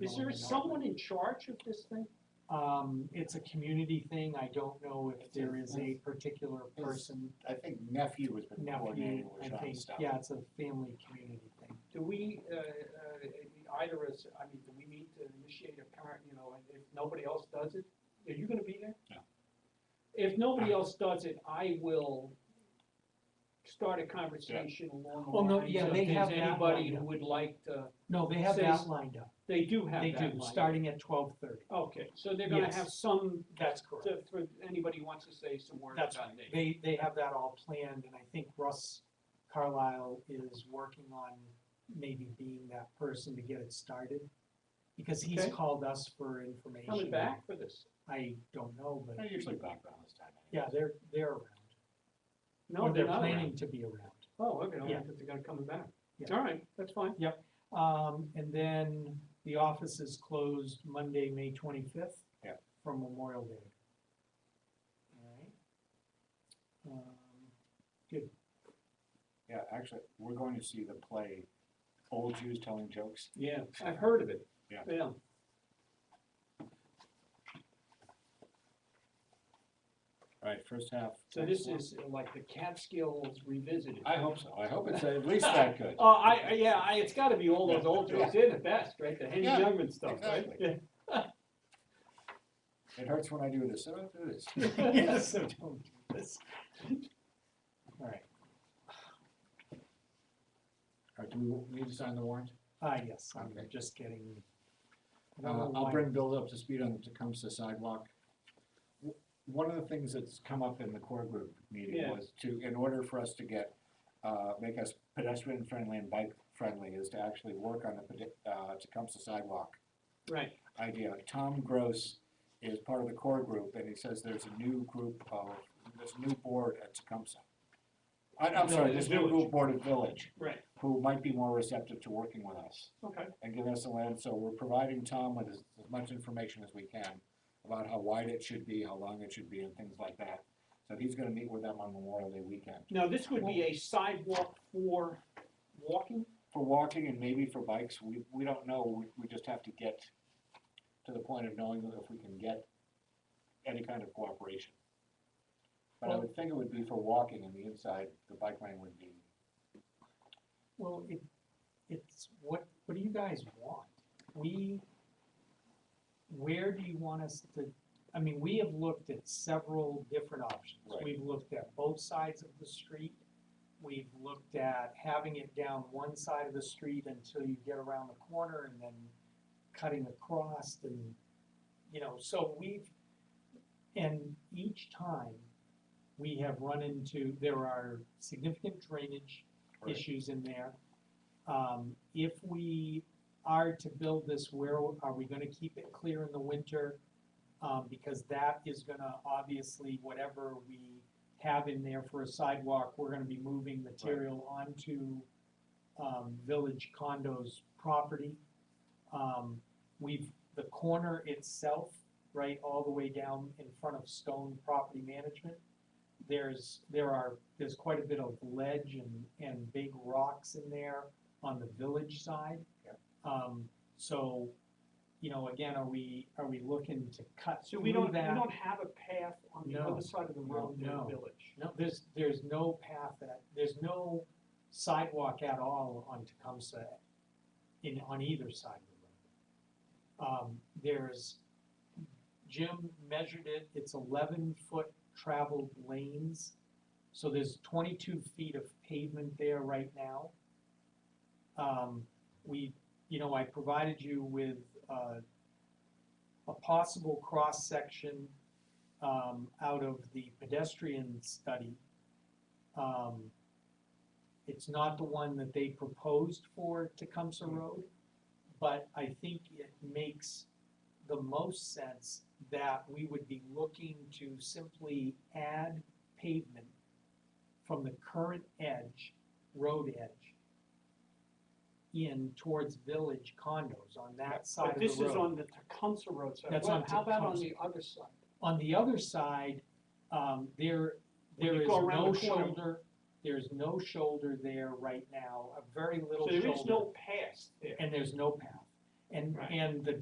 Is there someone in charge of this thing? Um, it's a community thing, I don't know if there is a particular person, I think nephew was been nephew, coordinating with I John think, Stout. yeah, it's a family community thing. Do we, uh, uh, either as, I mean, do we need to initiate a parent, you know, and if nobody else does it, are you gonna be there? No. If nobody else does it, I will start a conversation along the Well, Oh, no, lines yeah, of, they is have that anybody lined who up. would like to, No, they have Says- that lined up, they do have they that do, lined up. starting at twelve thirty, Okay, so they're gonna Yes. have some, that's correct. to- for anybody who wants to say some words That's about it. They, they have that all planned, and I think Russ Carlisle is working on maybe being that person to get it started. Because he's Okay. called us for information. Coming back for this? I don't know, They're but, usually back around this time. yeah, they're, they're around. No, Or they're they're not. planning to be around. Oh, okay, Yeah. I thought they're gonna come back. Yeah. All right, that's fine. Um, and then the office is closed Monday, May twenty-fifth. Yeah. From Memorial Day. All right. Um, Yeah, actually, we're going to see the play, Old Jews Telling Jokes. Yeah. I've heard of it. Yeah. All right, first half. So this is uh, like the Catskills revisited. I hope so. I hope it's at least that good. Oh, I, I- yeah, I, it's gotta be all those old jokes, they're the best, right, the Henny Yeah, Youngman stuff, right? It hurts when I do this. I don't do this. Um, Yes, so don't do this. All right, All right, do we need to sign the warrant? ah, yes, I'm Okay. just getting. I don't Uh, know I'll why- bring Bill up to speed on the Tecumseh sidewalk. W- One of the things that's come up in the core group meeting Yeah. was to, in order for us to get, uh, make us pedestrian friendly and bike friendly is to actually work on the pedi- uh, Tecumseh sidewalk Right, idea. Tom Gross is part of the core group and he says there's a new group of, this new board at Tecumseh. I, I'm sorry, this new Village. group board at Village, right, who might be more receptive to working with us okay, and give us a land, so we're providing Tom with as, as much information as we can about how wide it should be, how long it should be, and things like that. So he's gonna meet with them on Memorial Day weekend, now this would be a sidewalk for walking, for walking and maybe for bikes, we, we don't know, we, we just have to get to the point of knowing if we can get any kind of cooperation. But I would think it would be for walking and the inside, the bike lane would be, Well, it, it's, what, what do you guys want? We, where do you want us to, I mean, we have looked at several different options. Right. We've looked at both sides of the street. We've looked at having it down one side of the street until you get around the corner and then cutting across and, you know, so we've, and each time, we have run into, there are significant drainage Right. issues in there. Um, if we are to build this, where are we gonna keep it clear in the winter? Um, because that is gonna, obviously, whatever we have in there for a sidewalk, we're gonna be moving material onto, um, village condos property. Um, we've, the corner itself, right, all the way down in front of Stone Property Management, there's, there are, there's quite a bit of ledge and, and big rocks in there on the village side. Yep. Um, so, you know, again, are we, are we looking to cut so through that? we don't, we don't have a path on the No. other side of the road in the No. village. No, there's, there's no path that, there's no sidewalk at all on Tecumseh in, on either side of the road. Um, there's, Jim measured it, it's eleven foot traveled lanes. So there's twenty-two feet of pavement there right now. Um, we, you know, I provided you with, uh, a possible cross-section um, out of the pedestrian study. Um, It's not the one that they proposed for Tecumseh Hmm. Road, but I think it makes the most sense that we would be looking to simply add pavement from the current edge, road edge, in towards village condos on that side But of the road. this is on the Tecumseh Road side, That's well, on how about on Tecumseh. the other side? On the other side, um, there, When there you is go around no the corner. shoulder, there's no shoulder there right now, a very So little there is shoulder, no path there. and there's no path. And, Right. and the